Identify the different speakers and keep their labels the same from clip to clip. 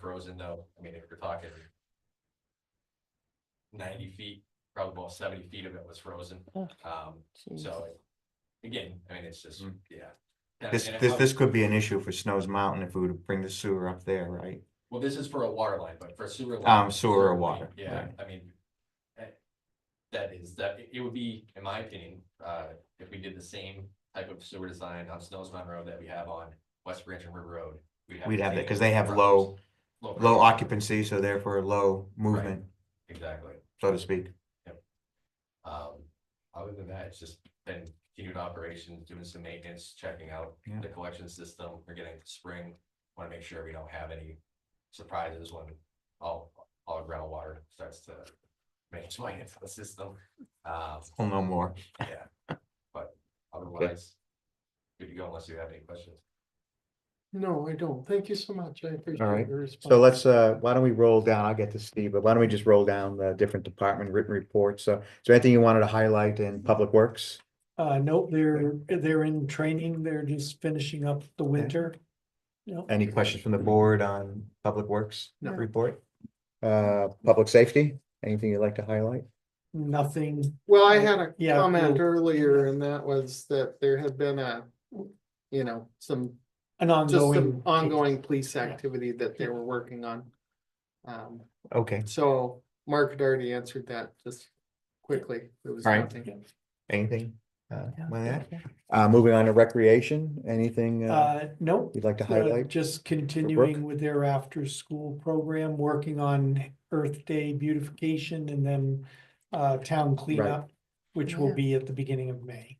Speaker 1: frozen though, I mean, if you're talking. Ninety feet, probably about seventy feet of it was frozen,
Speaker 2: Oh.
Speaker 1: um,
Speaker 3: Mm.
Speaker 1: so. Again, I mean, it's just,
Speaker 4: Mm.
Speaker 1: yeah. And-
Speaker 5: This,
Speaker 1: and
Speaker 5: this,
Speaker 1: I-
Speaker 5: this could be an issue for Snow's Mountain if we were to bring the sewer up there, right?
Speaker 1: Well, this is for a water line, but for sewer. line-
Speaker 5: Um, sewer or water,
Speaker 1: Yeah,
Speaker 5: right.
Speaker 1: I mean. eh, That is, that, it- it would be, in my opinion, uh, if we did the same type of sewer design on Snow's Mountain Road that we have on West Branch and River Road.
Speaker 5: We'd
Speaker 1: the
Speaker 5: have that,
Speaker 1: same
Speaker 5: because they have
Speaker 1: problems.
Speaker 5: low, low
Speaker 1: pressure.
Speaker 5: occupancy, so therefore low movement,
Speaker 1: Exactly.
Speaker 5: so to speak.
Speaker 1: Um, other than that, it's just been continued operations, doing some maintenance, checking out
Speaker 5: Yeah.
Speaker 1: the collection system. We're getting to spring. Want to make sure we don't have any surprises when all, all groundwater starts to make its way into the system. Um,
Speaker 5: Well, no more.
Speaker 1: otherwise, good to go unless you have any questions.
Speaker 2: No, I don't. Thank you so much. I
Speaker 5: right.
Speaker 2: appreciate your response.
Speaker 5: So let's, uh, why don't we roll down, I'll get to Steve, but why don't we just roll down the different department written reports? So, is there anything you wanted to highlight in Public Works?
Speaker 2: Uh, no, they're, they're in training. They're just finishing up the winter. No,
Speaker 5: Any questions from the board on Public Works
Speaker 2: No.
Speaker 5: report? Uh, Public Safety, anything you'd like to highlight?
Speaker 2: nothing.
Speaker 6: Well, I had a
Speaker 2: Yeah,
Speaker 6: comment
Speaker 2: cool.
Speaker 6: earlier and that was that there had been a, you know, some,
Speaker 2: An
Speaker 6: just
Speaker 2: ongoing.
Speaker 6: some ongoing police activity that they
Speaker 2: Yeah.
Speaker 6: were working on. Um,
Speaker 5: Okay,
Speaker 6: so Mark had already answered that just quickly. There was
Speaker 5: Right.
Speaker 6: nothing.
Speaker 5: anything? Uh,
Speaker 2: Yeah.
Speaker 5: with that? Uh, moving on to Recreation, anything, uh,
Speaker 2: Uh, no,
Speaker 5: you'd like to
Speaker 2: uh,
Speaker 5: highlight?
Speaker 2: just continuing with their after-school program, working on Earth Day beautification and then uh, town cleanup, which will
Speaker 6: Yeah.
Speaker 2: be at the beginning of May.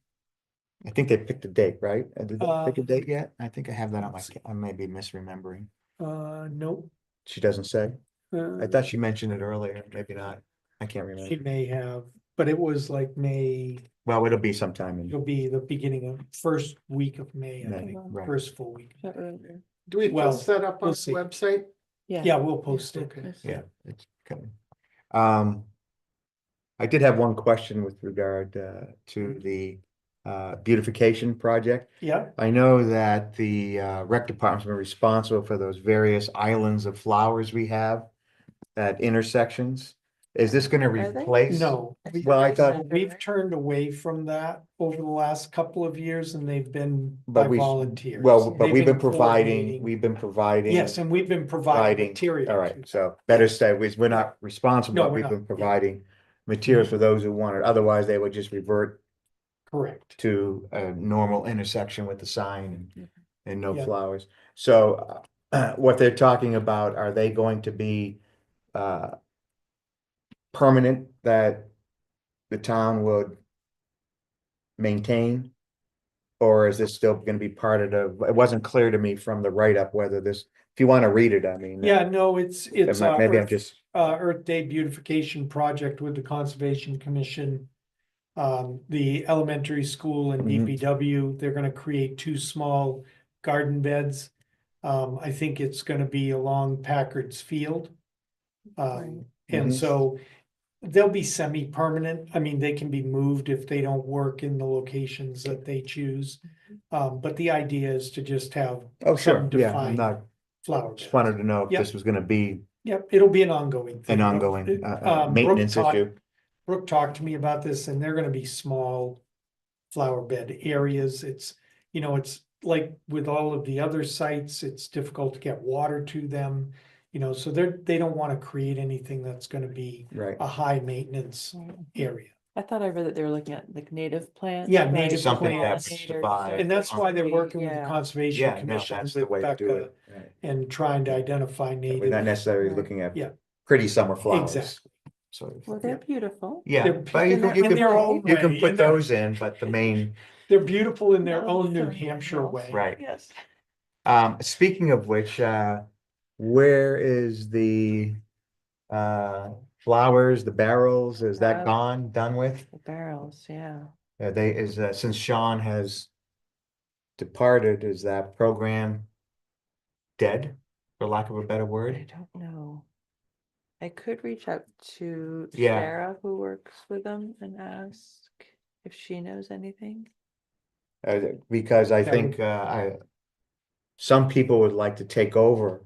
Speaker 5: I think they picked a date, right? Uh, Did they
Speaker 2: Uh,
Speaker 5: pick a date yet? I think I have that on my, ca- I may be misremembering.
Speaker 2: Uh, no.
Speaker 5: She doesn't say.
Speaker 2: uh,
Speaker 5: I thought she mentioned it earlier, maybe not. I can't remember.
Speaker 2: She may have, but it was like May,
Speaker 5: Well, it'll be sometime in
Speaker 2: it'll be the beginning of first week of May, I
Speaker 5: May,
Speaker 2: think,
Speaker 5: right?
Speaker 2: first full week.
Speaker 6: Do we
Speaker 2: Well,
Speaker 6: post that up on
Speaker 2: we'll
Speaker 6: the
Speaker 2: see.
Speaker 6: website?
Speaker 2: Yeah, we'll post it.
Speaker 6: Okay.
Speaker 5: Yeah, it's coming. Um, I did have one question with regard uh, to the uh, beautification project.
Speaker 2: Yeah,
Speaker 5: I know that the uh, rec department's been responsible for those various islands of flowers we have at intersections. Is this going to
Speaker 3: Are they?
Speaker 5: replace?
Speaker 2: no,
Speaker 5: Well, I thought,
Speaker 2: we've turned away from that over the last couple of years and they've been by
Speaker 5: But we-
Speaker 2: volunteers.
Speaker 5: well, but
Speaker 2: They've
Speaker 5: we've been providing,
Speaker 2: coordinating.
Speaker 5: we've been providing.
Speaker 2: Yes, and we've been
Speaker 5: providing-
Speaker 2: providing material.
Speaker 5: All right, so better say, we- we're not responsible,
Speaker 2: No,
Speaker 5: but
Speaker 2: we're
Speaker 5: we've
Speaker 2: not,
Speaker 5: been
Speaker 2: yeah.
Speaker 5: providing materials for those who want it, otherwise they would just revert
Speaker 2: Correct.
Speaker 5: to a normal intersection with the sign and, and no
Speaker 2: Yeah.
Speaker 5: flowers. So uh, what they're talking about, are they going to be uh, permanent that the town would maintain? Or is this still gonna be part of the, it wasn't clear to me from the write-up whether this, if you wanna read it, I mean.
Speaker 2: Yeah, no, it's, it's.
Speaker 5: Am I-
Speaker 2: uh,
Speaker 5: Maybe I'm
Speaker 2: Earth-
Speaker 5: just,
Speaker 2: uh, Earth Day beautification project with the Conservation Commission. Um, the elementary school and
Speaker 5: Mhm.
Speaker 2: DPW, they're gonna create two small garden beds. Um, I think it's gonna be along Packard's Field.
Speaker 3: Right.
Speaker 2: Um,
Speaker 5: Mhm.
Speaker 2: and so they'll be semi-permanent. I mean, they can be moved if they don't work in the locations that they choose. Um, but the idea is to just have
Speaker 5: oh, sure,
Speaker 2: Some
Speaker 5: yeah, I'm
Speaker 2: defined-
Speaker 5: not,
Speaker 2: flower
Speaker 5: just
Speaker 2: beds.
Speaker 5: wanted to know if
Speaker 2: Yep.
Speaker 5: this was gonna be
Speaker 2: Yep, it'll be an ongoing. thing.
Speaker 5: an ongoing uh, uh,
Speaker 2: Um, Brooke
Speaker 5: maintenance
Speaker 2: talked-
Speaker 5: issue.
Speaker 2: Brooke talked to me about this and they're gonna be small flower bed areas. It's, you know, it's like with all of the other sites, it's difficult to get water to them. You know, so they're, they don't wanna create anything that's gonna be
Speaker 5: Right.
Speaker 2: a high maintenance area.
Speaker 3: I thought I read that they were looking at like native plants.
Speaker 2: Yeah,
Speaker 3: like
Speaker 2: native
Speaker 5: Something that's
Speaker 3: pollinators or
Speaker 5: defined.
Speaker 2: And that's why they're working with the
Speaker 3: Yeah.
Speaker 2: Conservation
Speaker 5: Yeah, no,
Speaker 2: Commission
Speaker 5: that's the
Speaker 2: with
Speaker 5: way to do
Speaker 2: Becca
Speaker 5: it.
Speaker 2: and trying to identify
Speaker 5: We're not
Speaker 2: native.
Speaker 5: necessarily
Speaker 3: Right.
Speaker 5: looking at
Speaker 2: Yeah.
Speaker 5: pretty summer flowers.
Speaker 2: Exactly.
Speaker 5: sort of.
Speaker 3: Well, they're beautiful.
Speaker 5: Yeah,
Speaker 2: They're
Speaker 5: but you
Speaker 2: picking
Speaker 5: can,
Speaker 2: it
Speaker 5: you
Speaker 2: in
Speaker 5: can,
Speaker 2: their own
Speaker 5: you can
Speaker 2: way,
Speaker 5: put
Speaker 2: in their-
Speaker 5: those in, but the main,
Speaker 2: They're beautiful in their
Speaker 3: No,
Speaker 2: own New
Speaker 3: something
Speaker 2: Hampshire
Speaker 3: else.
Speaker 2: way.
Speaker 5: right.
Speaker 3: Yes.
Speaker 5: Um, speaking of which, uh, where is the uh, flowers, the barrels, is
Speaker 3: Uh,
Speaker 5: that gone, done with?
Speaker 3: The barrels, yeah.
Speaker 5: Uh, they is, uh, since Sean has departed, is that program dead, for lack of a better
Speaker 3: I
Speaker 5: word?
Speaker 3: don't know. I could reach out to
Speaker 5: Yeah.
Speaker 3: Sarah, who works with them, and ask if she knows anything.
Speaker 5: Uh, because I
Speaker 2: That
Speaker 5: think, uh, I, some people would like to take over